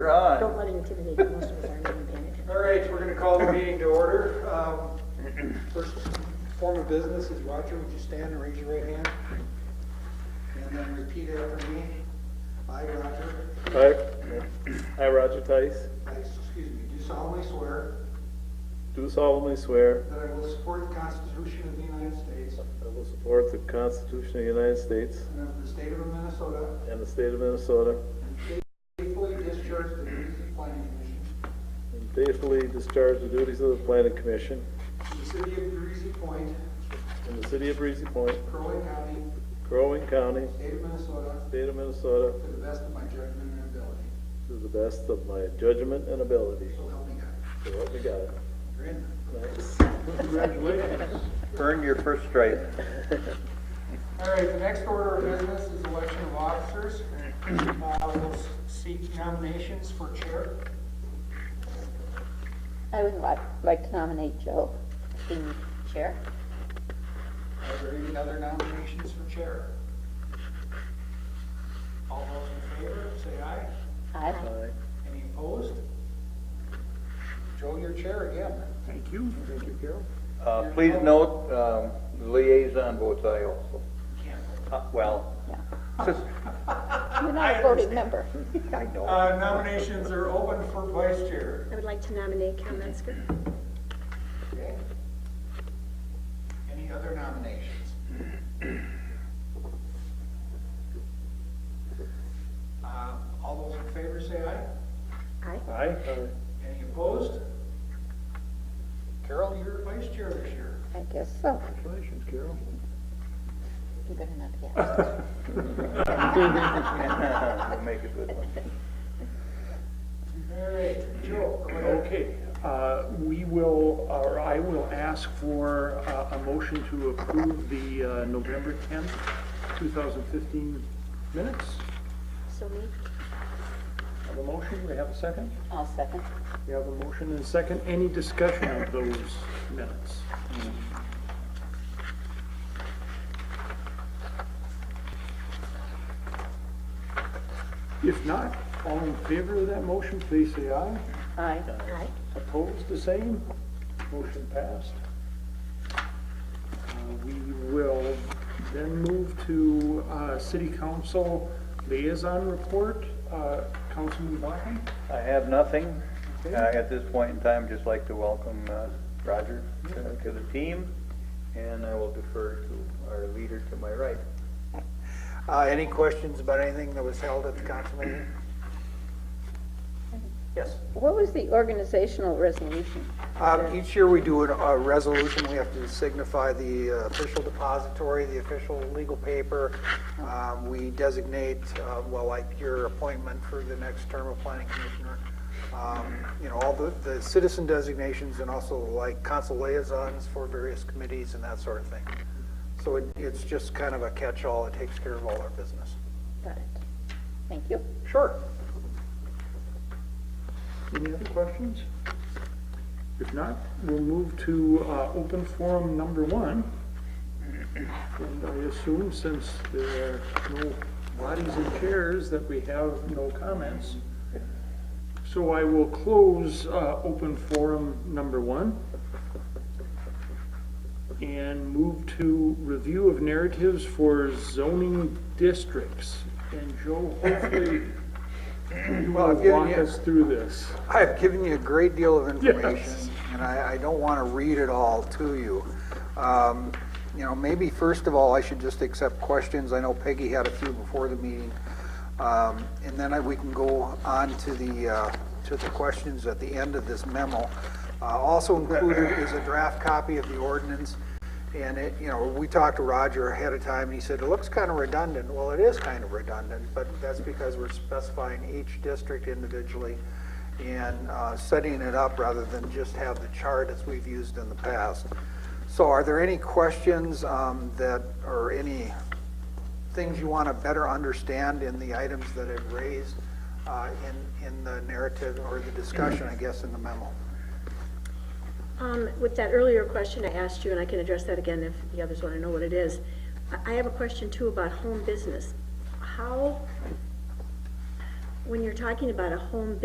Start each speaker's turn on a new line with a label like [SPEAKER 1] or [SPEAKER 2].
[SPEAKER 1] Right.
[SPEAKER 2] Don't let it intimidate you, most of us aren't even paying attention.
[SPEAKER 3] All right, we're going to call the meeting to order. Um, First form of business is Roger, would you stand and raise your right hand? And then repeat after me. I, Roger,
[SPEAKER 4] Hi, I, Roger Tice,
[SPEAKER 3] I, excuse me, do solemnly swear
[SPEAKER 4] do solemnly swear
[SPEAKER 3] that I will support the Constitution of the United States
[SPEAKER 4] I will support the Constitution of the United States
[SPEAKER 3] and of the state of Minnesota,
[SPEAKER 4] and the state of Minnesota,
[SPEAKER 3] and faithfully discharge the duties of planning commission
[SPEAKER 4] and faithfully discharge the duties of the Planning Commission
[SPEAKER 3] in the city of Breezy Point,
[SPEAKER 4] in the city of Breezy Point,
[SPEAKER 3] Crow Wing County,
[SPEAKER 4] Crow Wing County,
[SPEAKER 3] state of Minnesota,
[SPEAKER 4] state of Minnesota,
[SPEAKER 3] to the best of my judgment and ability.
[SPEAKER 4] to the best of my judgment and ability.
[SPEAKER 3] So help me God.
[SPEAKER 4] So help me God.
[SPEAKER 3] You're in.
[SPEAKER 4] Thanks.
[SPEAKER 3] Congratulations.
[SPEAKER 1] Earn your first stripe.
[SPEAKER 3] All right, the next order of business is election of officers. Uh, We'll seek nominations for chair.
[SPEAKER 5] I would like, like to nominate Joe to chair.
[SPEAKER 3] Are there any other nominations for chair? All those in favor, say aye.
[SPEAKER 5] I,
[SPEAKER 4] Aye.
[SPEAKER 3] Any opposed? Joe, your chair again. Thank you. Thank you, Carol.
[SPEAKER 1] Uh, Please note, um, the liaison votes aye also. Uh, Well,
[SPEAKER 5] yeah. You're not a voting member.
[SPEAKER 1] I know.
[SPEAKER 3] Uh, Nominations are open for vice chair.
[SPEAKER 2] I would like to nominate Cal Metzger.
[SPEAKER 3] Okay. Any other nominations? Uh, All those in favor say aye.
[SPEAKER 2] Aye.
[SPEAKER 4] Aye.
[SPEAKER 3] Any opposed? Carol, you're vice chair this year.
[SPEAKER 5] I guess so.
[SPEAKER 4] Congratulations, Carol.
[SPEAKER 5] I'm good enough, yeah.
[SPEAKER 1] We'll Make a good one.
[SPEAKER 3] All right, Joe, go ahead.
[SPEAKER 6] Okay, uh, we will, or I will ask for uh, a motion to approve the uh, November 10th, 2015 minutes.
[SPEAKER 2] So moved.
[SPEAKER 6] Have a motion, we have a second?
[SPEAKER 5] I'll second.
[SPEAKER 6] We have a motion and a second. Any discussion of those minutes? If not, all in favor of that motion, please say aye.
[SPEAKER 5] Aye.
[SPEAKER 2] Aye.
[SPEAKER 6] Opposed, the same. Motion passed. Uh, We will then move to uh, City Council Liaison Report. Uh, Councilman Blackman?
[SPEAKER 1] I have nothing. Uh, At this point in time, just like to welcome uh, Roger to to the team, and I will defer to our leader to my right.
[SPEAKER 3] Uh, Any questions about anything that was held at the council meeting? Yes.
[SPEAKER 5] What was the organizational resolution?
[SPEAKER 3] Um, Each year we do an- a resolution, we have to signify the uh, official depository, the official legal paper. Um, We designate, uh, well, like your appointment for the next term of planning commissioner. Um, You know, all the the citizen designations and also like council liaisons for various committees and that sort of thing. So it- it's just kind of a catch-all, it takes care of all our business.
[SPEAKER 5] Got it. Thank you.
[SPEAKER 3] Sure.
[SPEAKER 6] Any other questions? If not, we'll move to uh, open forum number one. And I assume since there are no bodies and chairs, that we have no comments. So I will close uh, open forum number one and move to review of narratives for zoning districts. And Joe, hopefully you
[SPEAKER 3] Well, I've
[SPEAKER 6] will
[SPEAKER 3] given
[SPEAKER 6] walk
[SPEAKER 3] you-
[SPEAKER 6] us through this.
[SPEAKER 3] I've given you a great deal of information,
[SPEAKER 6] Yes.
[SPEAKER 3] and I, I don't want to read it all to you. Um, You know, maybe first of all, I should just accept questions. I know Peggy had a few before the meeting. Um, And then I- we can go on to the, uh, to the questions at the end of this memo. Uh, Also included is a draft copy of the ordinance. And it, you know, we talked to Roger ahead of time, and he said, it looks kind of redundant. Well, it is kind of redundant, but that's because we're specifying each district individually and uh, setting it up rather than just have the chart as we've used in the past. So are there any questions um, that, or any things you want to better understand in the items that I've raised uh, in, in the narrative or the discussion, I guess, in the memo?
[SPEAKER 2] Um, With that earlier question I asked you, and I can address that again if the others want to know what it is, I- I have a question too about home business. How, when you're talking about a home